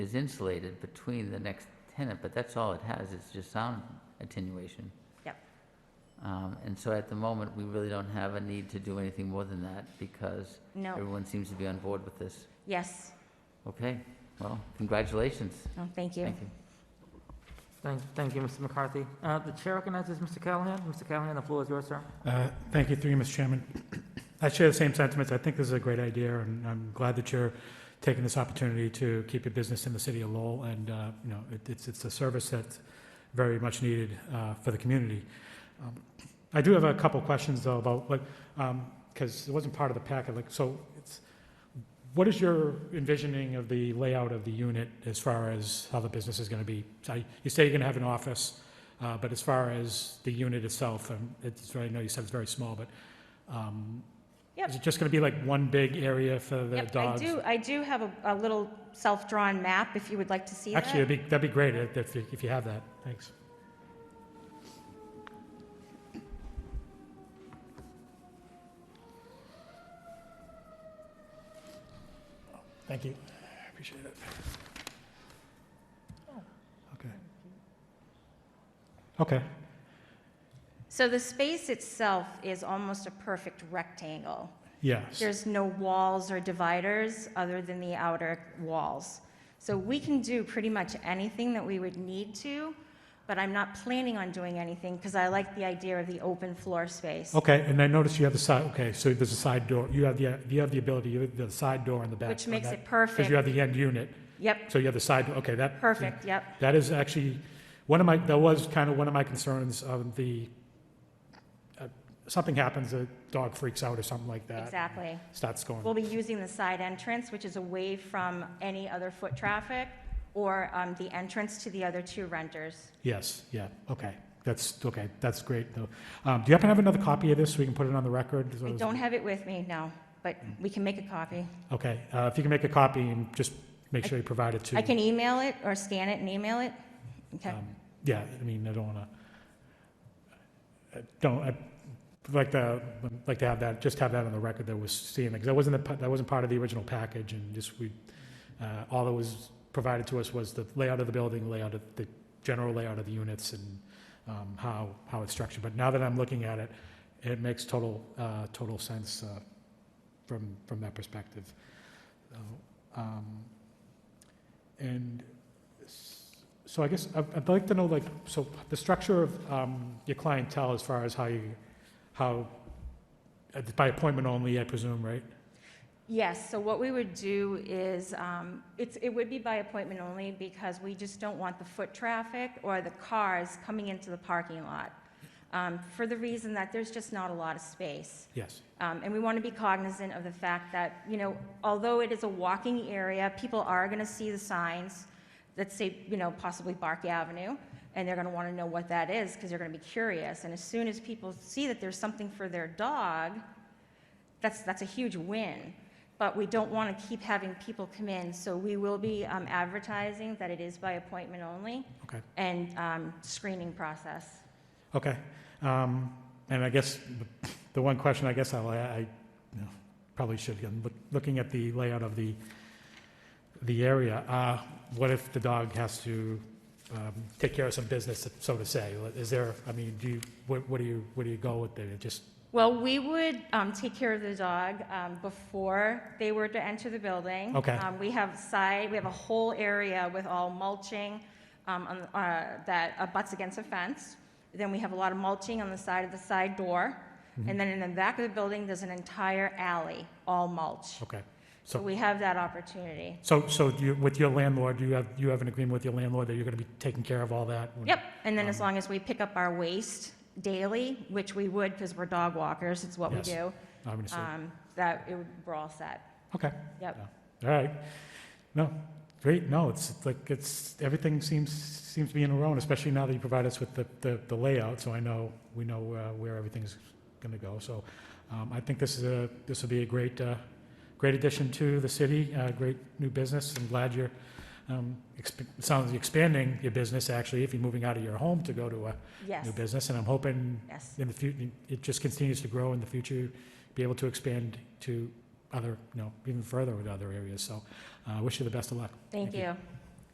is insulated between the next tenant, but that's all it has, it's just sound attenuation. Yep. Um, and so at the moment, we really don't have a need to do anything more than that because No, everyone seems to be on board with this. yes, Okay, well, congratulations. no, thank you. Thank you. Thank, thank you, Mr. McCarthy. Uh, The chair recognizes Mr. Callahan. Mr. Callahan, the floor is yours, sir. Uh, Thank you, through you, Mr. Chairman. I share the same sentiments. I think this is a great idea, and I'm glad that you're taking this opportunity to keep your business in the city of Lowell, and, uh, you know, it- it's, it's a service that's very much needed uh, for the community. Um, I do have a couple questions, though, about, like, because it wasn't part of the packet, like, so it's, what is your envisioning of the layout of the unit as far as how the business is going to be? So I- You say you're going to have an office, uh, But as far as the unit itself, um, it's very, I know you said it's very small, but um, Yep. is it just going to be like one big area for the Yep, I dogs? do, I do have a, a little self-drawn map if you would like to see that. Actually, that'd be, that'd be great if- if, you- if you have that. Thanks. Thank you. I Appreciate it. Okay. Okay. So the space itself is almost a perfect rectangle. Yes. There's no walls or dividers other than the outer walls. So we can do pretty much anything that we would need to, but I'm not planning on doing anything because I like the idea of the open floor space, Okay, and I noticed you have the side, okay, so there's a side door, you have the, you have the ability, you have the side door in the back. which makes it Because you perfect. have the end unit, Yep, so you have the side, door. okay, that. perfect, yep. That is actually, one of my, that was kind of one of my concerns of the, uh, something happens, a dog freaks out or something like that. Exactly. Starts going. We'll be using the side entrance, which is away from any other foot traffic or um, the entrance to the other two renters. Yes, yeah, okay, that's, okay, that's great, though. Um, Do you happen to have another copy of this, so we can put it on the record? I don't have it with me now, but we can make a copy. Okay, uh, if you can make a copy and just make I- sure you provide it to. I can email it or scan it and email it. Okay, Um, Yeah, I mean, I don't want to, don't, I'd like to, like to have that, just have that on the record that was seeing, because that wasn't, the pa- that wasn't part of the original package, and just we, uh, all that was provided to us was the layout of the building, layout of, the general layout of the units, and um, how, how it's structured. But now that I'm looking at it, it makes total, uh, total sense uh, from, from that perspective. So, um, And s- so I guess I'd I'd like to know, like, so the structure of um, your clientele as far as how you, how, uh, by appointment only, I presume, right? yes, so what we would do is, um, it's, it would be by appointment only because we just don't want the foot traffic or the cars coming into the parking lot. um, For the reason that there's just not a lot of space. Yes. Um, And we want to be cognizant of the fact that, you know, although it is a walking area, people are going to see the signs that say, you know, possibly Bark Avenue, and they're going to want to know what that is because they're going to be curious. And as soon as people see that there's something for their dog, that's, that's a huge win. But we don't want to keep having people come in, so we will be um, advertising that it is by appointment only Okay, and um, screening process. okay. Um, And I guess the- the one question I guess I'll, I, I, you know, probably should, I'm look- looking at the layout of the, the area, uh, what if the dog has to um, take care of some business, so to say? Is there, I mean, do you, what what do you, where do you go with it? Just, Well, we would um, take care of the dog um, before they were to enter the building. Okay. Um, We have side, we have a whole area with all mulching um, on, uh, that abuts against a fence. Then we have a lot of mulching on the side of the side door. Mm-hmm. And then in the back of the building, there's an entire alley, all mulch. okay. So we have that opportunity. So, so do you, with your landlord, do you have, you have an agreement with your landlord that you're gonna be taking care of all that? Yep, and then as Um. long as we pick up our waste daily, which we would because we're dog walkers, it's what we Yes, do, Obviously, um, that it would- we're all set. okay, Yep. all right. No, great, no, it's it's like, it's, everything seems, seems to be in a row, and especially now that you provide us with the, the the layout, so I know, we know uh, where everything's gonna go, so um, I think this is a, this will be a great, uh, great addition to the city, uh, great new business, I'm glad you're, um, exp- sounds like you're expanding your business, actually, if you're moving out of your home to go to a Yes, new business, and I'm hoping yes, in the future, it just continues to grow in the future, be able to expand to other, you know, even further with other areas. So I uh, wish you the best of luck. thank you.